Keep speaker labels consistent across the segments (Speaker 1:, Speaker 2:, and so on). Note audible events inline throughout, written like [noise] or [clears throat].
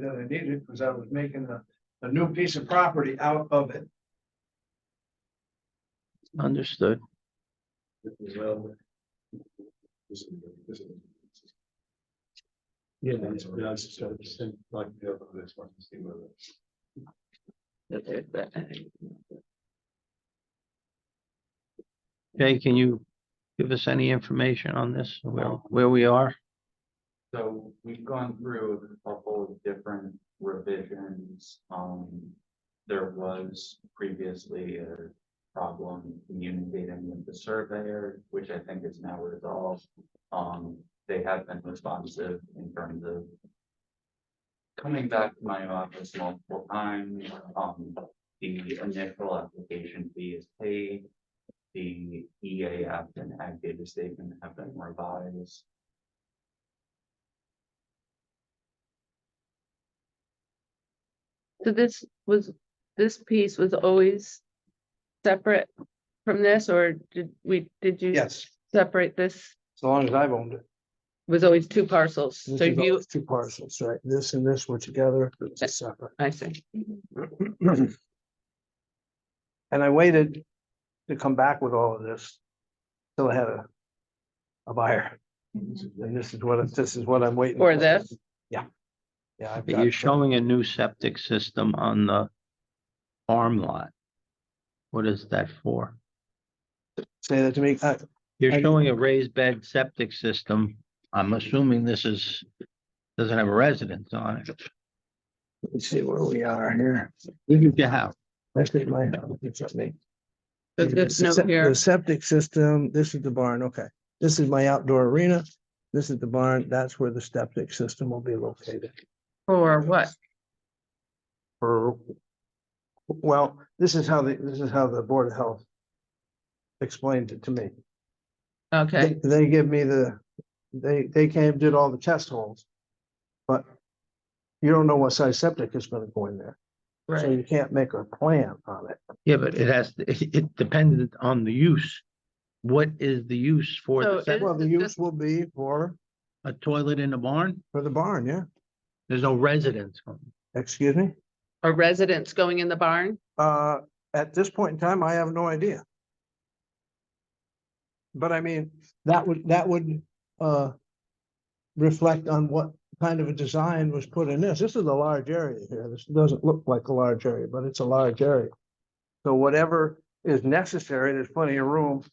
Speaker 1: that I needed, because I was making a, a new piece of property out of it.
Speaker 2: Understood.
Speaker 3: Yeah,
Speaker 1: that's what I
Speaker 3: it's just like the other, this one, see whether.
Speaker 2: Okay, can you give us any information on this, where, where we are?
Speaker 4: So we've gone through a couple of different revisions. Um, there was previously a problem communicating with the surveyor, which I think is now resolved. Um, they have been responsive in terms of coming back to my office multiple times. Um, the initial application fee is paid. The EA app and ag data statement have been revised.
Speaker 5: So this was, this piece was always separate from this, or did we, did you
Speaker 1: Yes,
Speaker 5: separate this?
Speaker 3: As long as I've owned it.
Speaker 5: Was always two parcels,
Speaker 3: This
Speaker 5: so
Speaker 3: is all
Speaker 5: you,
Speaker 3: Two parcels, right? This and this were together, it's a [clears throat] separate.
Speaker 5: I see,
Speaker 3: And I waited to come back with all of this. Till I had a. A buyer. And this is what, this is what I'm waiting.
Speaker 5: Or
Speaker 3: for.
Speaker 5: this.
Speaker 3: Yeah. Yeah. I've
Speaker 2: But
Speaker 3: got-
Speaker 2: You're showing a new septic system on the farm lot. What is that for?
Speaker 3: Say that to me, uh,
Speaker 2: You're
Speaker 3: I-
Speaker 2: showing a raised bed septic system. I'm assuming this is, doesn't have a residence on it.
Speaker 3: let's see where we are here.
Speaker 2: Your house.
Speaker 3: That's in my house, it's up me.
Speaker 5: So
Speaker 3: The
Speaker 5: this note
Speaker 3: sep-
Speaker 5: here,
Speaker 3: The septic system, this is the barn, okay. This is my outdoor arena. This is the barn, that's where the septic system will be located.
Speaker 5: or what,
Speaker 3: Or, well, this is how the, this is how the Board of Health explained it to me. They,
Speaker 5: okay,
Speaker 3: they give me the, they, they came, did all the test holes. But you don't know what size septic is gonna go in there, so
Speaker 5: right,
Speaker 3: you can't make a plan on it.
Speaker 2: Yeah, but it has, [laughs] it, it depends on the use. What is the use for
Speaker 5: So
Speaker 2: the
Speaker 5: it-
Speaker 2: septic?
Speaker 3: Well, the
Speaker 5: is
Speaker 3: use
Speaker 5: just-
Speaker 3: will be for,
Speaker 2: A toilet in a barn?
Speaker 3: for the barn, yeah,
Speaker 2: There's no residence.
Speaker 3: excuse me?
Speaker 5: or residents going in the barn?
Speaker 3: Uh, at this point in time, I have no idea. But I mean, that would, that would, uh. Reflect on what kind of a design was put in this. This is a large area here. This doesn't look like a large area, but it's a large area. So whatever is necessary, there's plenty of room, to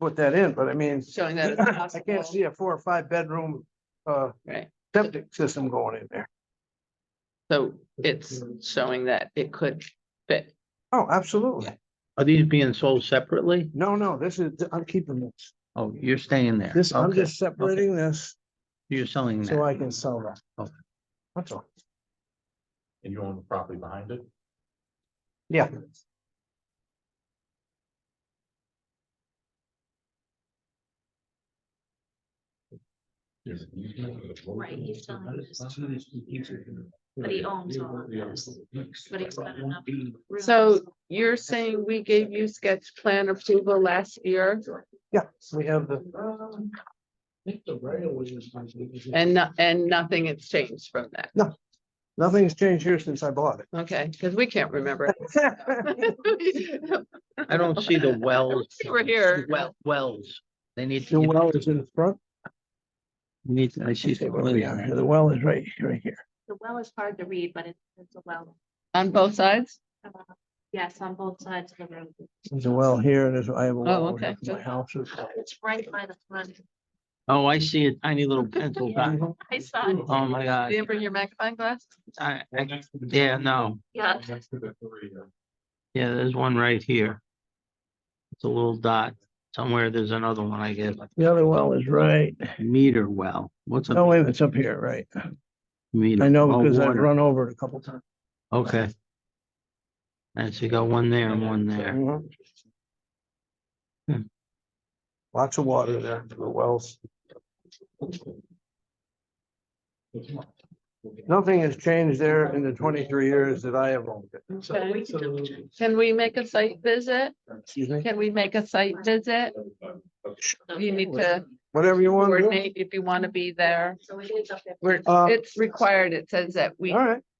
Speaker 3: put that in, but I mean. [laughs]
Speaker 5: Showing that it's
Speaker 3: I
Speaker 5: possible,
Speaker 3: can't see a four or five bedroom, uh,
Speaker 5: right,
Speaker 3: septic system going in there.
Speaker 5: so it's showing that it could fit,
Speaker 3: Oh, absolutely.
Speaker 2: Are these being sold separately?
Speaker 3: No, no, this is, I'm keeping this.
Speaker 2: Oh, you're staying there.
Speaker 3: This, I'm
Speaker 2: Okay.
Speaker 3: just separating this.
Speaker 2: You're selling
Speaker 3: So
Speaker 2: that.
Speaker 3: I can sell that.
Speaker 2: Okay.
Speaker 3: That's all.
Speaker 4: And you own the property behind it?
Speaker 3: Yeah.
Speaker 6: Right, he's selling this But he owns all of this, but he's got enough room.
Speaker 5: so you're saying we gave you sketch plan approval last year?
Speaker 3: Yeah, we have the,
Speaker 5: And uh, no- and nothing has changed from that,
Speaker 3: nothing's changed here since I bought it.
Speaker 5: okay, because we can't remember. [laughs]
Speaker 2: I don't see the wells.
Speaker 5: see we're here.
Speaker 2: The Well, wells. They need.
Speaker 3: The
Speaker 2: to
Speaker 3: well is in the front.
Speaker 2: Need, I see.
Speaker 3: Let's see where we are. The well is right, right here.
Speaker 6: The well is hard to read, but it's, it's a well.
Speaker 5: [laughs] On both sides?
Speaker 6: Yes, on both sides of the road.
Speaker 3: There's a well here and there's, I have a well. over
Speaker 5: Oh, okay.
Speaker 3: here. My house is.
Speaker 6: It's right by the front.
Speaker 2: Oh, I see a tiny little pencil dot.
Speaker 3: Mhm.
Speaker 6: I saw it.
Speaker 2: Oh, my
Speaker 5: You
Speaker 2: God.
Speaker 5: Didn't bring your magnifying glass?
Speaker 2: I, I, yeah, no.
Speaker 6: Yeah,
Speaker 4: Next to the three, uh,
Speaker 2: Yeah, there's one right here. It's a little dot. Somewhere there's another one, I guess.
Speaker 3: The other well is right.
Speaker 2: Meter well. What's
Speaker 3: No,
Speaker 2: a
Speaker 3: wait, it's up here, right?
Speaker 2: meter?
Speaker 3: I Oh, know
Speaker 2: Oh,
Speaker 3: because I've
Speaker 2: water.
Speaker 3: run over it a couple times.
Speaker 2: Okay. And so you got one there and one there.
Speaker 3: Mhm.
Speaker 2: Hmm.
Speaker 3: Lots of water there, for the wells. Nothing has changed there in the twenty-three years that I have owned it.
Speaker 6: so we can double check.
Speaker 5: Can we make a site visit?
Speaker 3: Excuse me?
Speaker 6: uh,
Speaker 5: Can we make a site visit?
Speaker 6: So
Speaker 5: You need to
Speaker 3: whatever you want to do.
Speaker 5: coordinate if you want to be there.
Speaker 6: So it is up there.
Speaker 5: We're,
Speaker 3: Uh,
Speaker 5: it's required. It says that we
Speaker 3: All right.